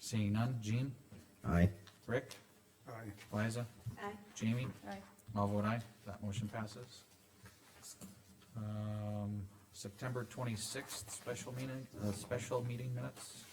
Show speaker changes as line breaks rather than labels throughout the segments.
Seeing none, Jean,
Aye.
Rick,
Aye.
Liza,
Aye.
Jamie,
Aye.
I'll vote aye, that motion passes. Um, September twenty-sixth, special meeting, uh, special meeting minutes.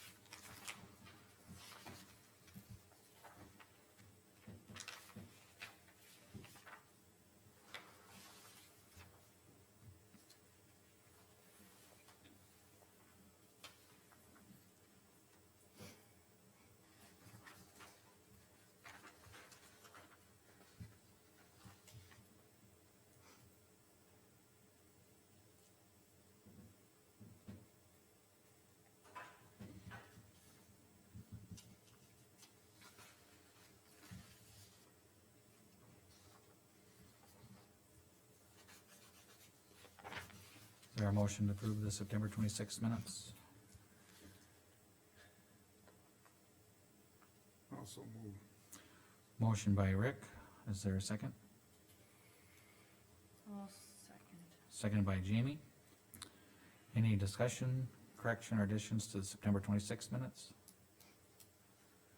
Is there a motion to approve the September twenty-sixth minutes?
Also move.
Motion by Rick, is there a second?
I'll second.
Seconded by Jamie. Any discussion, correction, or additions to the September twenty-sixth minutes?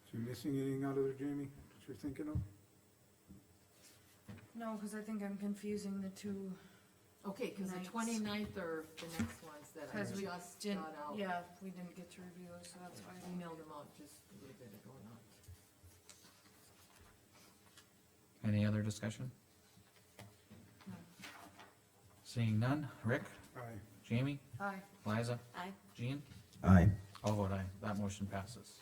Is you missing anything out of there, Jamie, that you're thinking of?
No, cause I think I'm confusing the two,
Okay, cause the
Nights.
twenty-ninth are the next ones that I
'Cause we
just
didn't,
got out.
yeah, we didn't get to review those, so that's
I
why.
emailed them out just a little bit ago, not.
Any other discussion?
No.
Seeing none, Rick,
Aye.
Jamie,
Aye.
Liza,
Aye.
Jean,
Aye.
I'll vote aye, that motion passes.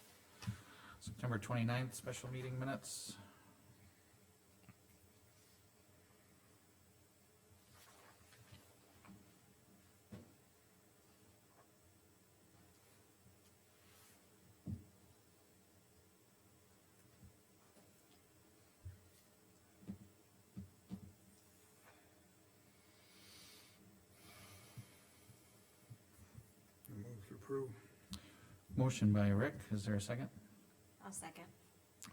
September twenty-ninth, special meeting minutes,
I Move to approve.
motion by Rick, is there a second?
I'll second.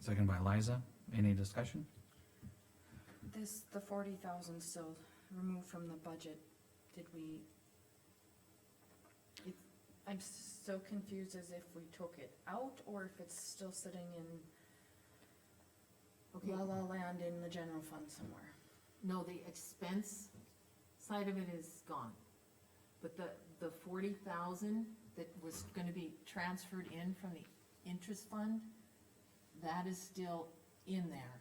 Second by Liza, any discussion?
This, the forty thousand still removed from the budget, did we? It- I'm so confused as if we took it out or if it's still sitting in
Okay,
la la land in the general fund somewhere.
no, the expense side of it is gone. But the, the forty thousand that was gonna be transferred in from the interest fund, that is still in there.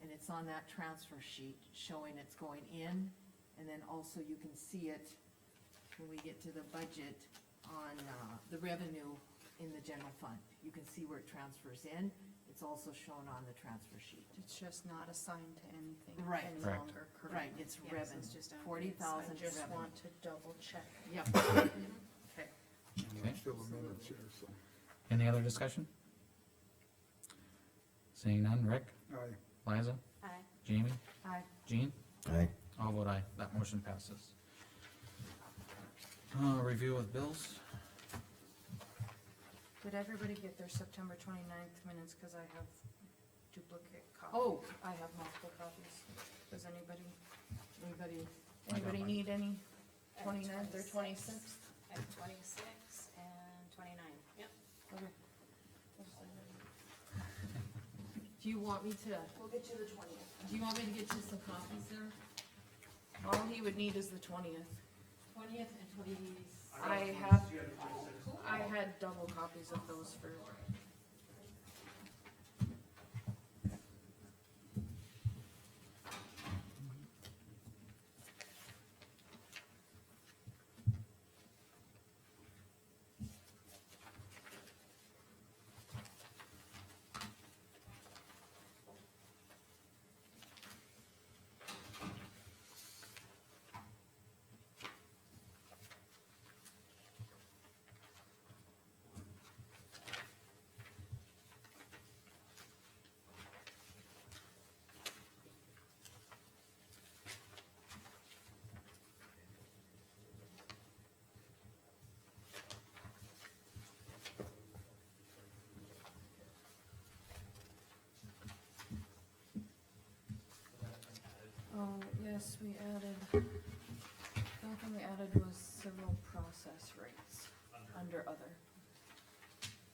And it's on that transfer sheet showing it's going in, and then also you can see it when we get to the budget on, uh, the revenue in the general fund. You can see where it transfers in, it's also shown on the transfer sheet.
It's just not assigned to anything
Right.
any
Correct.
longer, correct?
Right, it's
Yes,
revenue,
it's just on-
forty
I
thousand
just
revenue.
want to double check.
Yep,
Okay.
And
Okay.
I'm still a minute here, so.
Any other discussion? Seeing none, Rick,
Aye.
Liza,
Aye.
Jamie,
Aye.
Jean,
Aye.
I'll vote aye, that motion passes. Uh, review of bills,
Did everybody get their September 29th minutes, cause I have duplicate copies?
Oh.
I have multiple copies. Does anybody,
anybody,
I got
anybody
mine.
need any
At
29th or
26th.
twenty-sixth?
I have twenty-six and twenty-nine. Yep.
Okay.
do you want me to,
We'll get you the twentieth.
do you want me to get you some copies there?
All he would need is the twentieth.
Twentieth and twenty-sixth?
I have, I had double copies of those for, oh, yes, we added, the only thing we added was civil process rates under other.